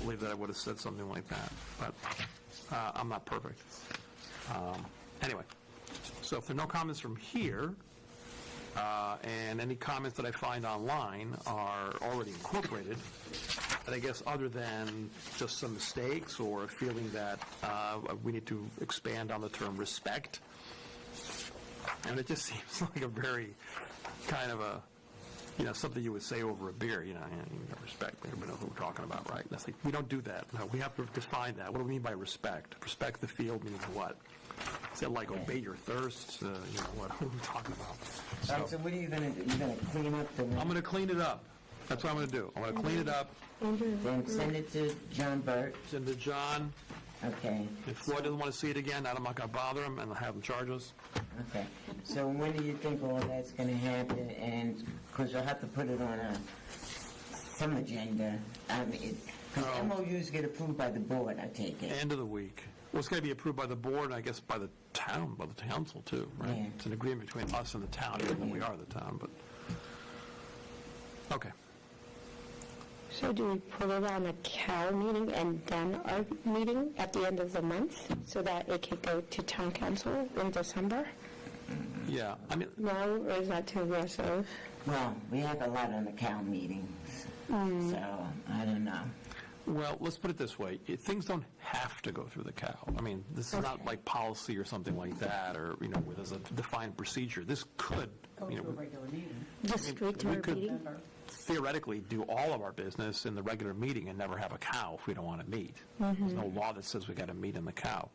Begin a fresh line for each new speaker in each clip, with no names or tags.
believe that I would have said something like that, but uh, I'm not perfect. Um, Anyway, so if there are no comments from here, uh, and any comments that I find online are already incorporated, and I guess other than just some mistakes or a feeling that uh, we need to expand on the term respect, and it just seems like a very kind of a, you know, something you would say over a beer, you know, you know, respect, everybody knows what we're talking about, right? That's like, we don't do that. No, we have to define that. What do we mean by respect? Respect the field means what? Is it like obey your thirst? Uh, you know, what, what are we talking
Um,
about?
so
So,
what are you gonna do? You gonna clean up the,
I'm going to clean it up. That's what I'm going to do. I'm going to clean it up.
then send it to John Burt,
Send to John.
okay,
If Floyd doesn't want to see it again, I'm not going to bother him and have him charge us.
okay. So when do you think all that's gonna happen, and, cause you'll have to put it on a, some agenda, I mean, it, cause
No.
MOUs get approved by the board, I take it.
End of the week. Well, it's got to be approved by the board, I guess, by the town, by the council too, right?
Yeah.
It's an agreement between us and the town, even though we are the town, but, okay.
So do we put it on a Cal meeting and then our meeting at the end of the month so that it can go to town council in December?
Yeah, I mean,
No, or is that too aggressive?
Well, we have a lot on the Cal meetings, so, I don't know.
well, let's put it this way. It- Things don't have to go through the cow. I mean, this is not like policy or something like that, or, you know, where there's a defined procedure. This could, you know,
regular meeting.
Just straight to
we
our
could-
meeting?
theoretically do all of our business in the regular meeting and never have a cow if we don't want to meet. There's no law that says we got to meet in the cow.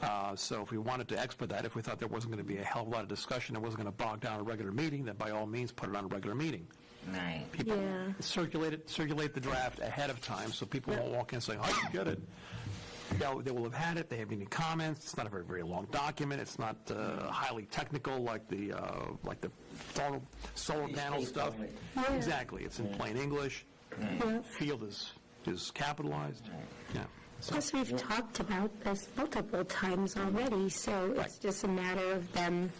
Uh, So if we wanted to expedite, if we thought there wasn't going to be a hell of a lot of discussion, it wasn't going to bog down a regular meeting, then by all means, put it on a regular meeting.
Right.
People
Yeah.
circulate it, circulate the draft ahead of time, so people won't walk in saying, "Oh, I didn't get it." They'll- They will have had it, they haven't any comments, it's not a very, very long document, it's not uh, highly technical like the, uh, like the solar- solar
It's
panel stuff.
straightforward.
Yeah.
Exactly, it's in plain English,
Yeah.
field is, is capitalized, yeah. So-
Plus, we've talked about this multiple times already, so it's just a matter of them,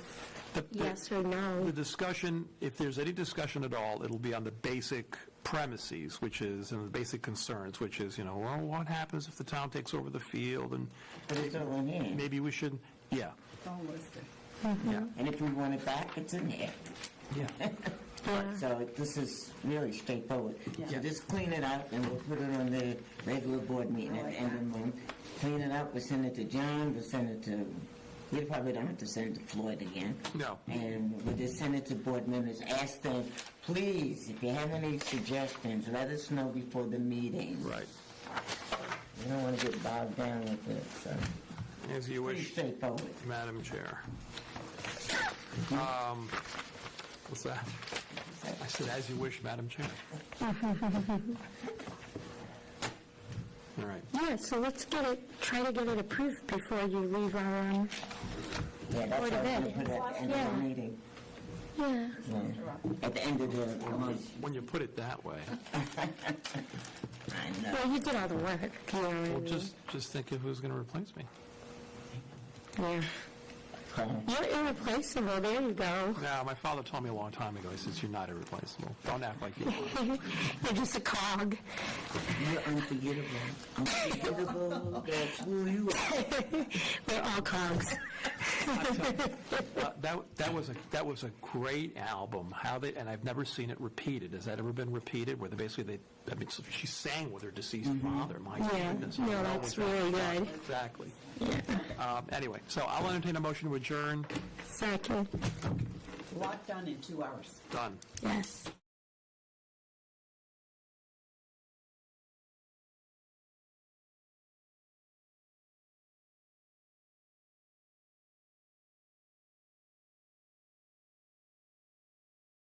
the- the-
yes or no.
The discussion, if there's any discussion at all, it'll be on the basic premises, which is, and the basic concerns, which is, you know, well, what happens if the town takes over the field, and
But it's all in here,
maybe we should, yeah,
It's all listed.
yeah,
and if we want it back, it's in here.
yeah.
Yeah.
So this is really straightforward. So
Yeah.
just clean it up, and we'll put it on the regular board meeting at the end of the month. Clean it up, we'll send it to John, we'll send it to, we probably don't have to send it to Floyd again.
No.
And we'll just send it to board members, ask them, please, if you have any suggestions, let us know before the meeting.
Right.
We don't want to get bogged down with it, so.
As you
Pretty
wish,
straightforward.
Madam Chair. Um, What's that? I said, as you wish, Madam Chair. All right.
Yeah, so let's get it, try to get it approved before you leave our, um,
Yeah, that's
Board of
what we're going
Ed.
to put it at the end of the
Yeah.
meeting.
yeah.
Yeah. At the end of the month.
When you put it that way,
I know.
Well, you did all the work, you know what I
well,
mean?
just, just think of who's going to replace me.
Yeah. You're irreplaceable, there you go.
Now, my father told me a long time ago, he says, you're not irreplaceable. Don't act like you are.
You're just a cog.
You're unforgettable. Unforgettable, that's who you are.
We're all cogs.
Uh, That, that was a, that was a great album, how they, and I've never seen it repeated. Has that ever been repeated, where they basically, they, I mean, so she sang with her deceased father, my
Mm-hmm. Yeah.
goodness.
No,
I don't know
that's
what that-
really good.
Exactly. Um, Anyway, so I'll entertain a motion to adjourn,
Second,
A lot done in two hours.
done.
yes.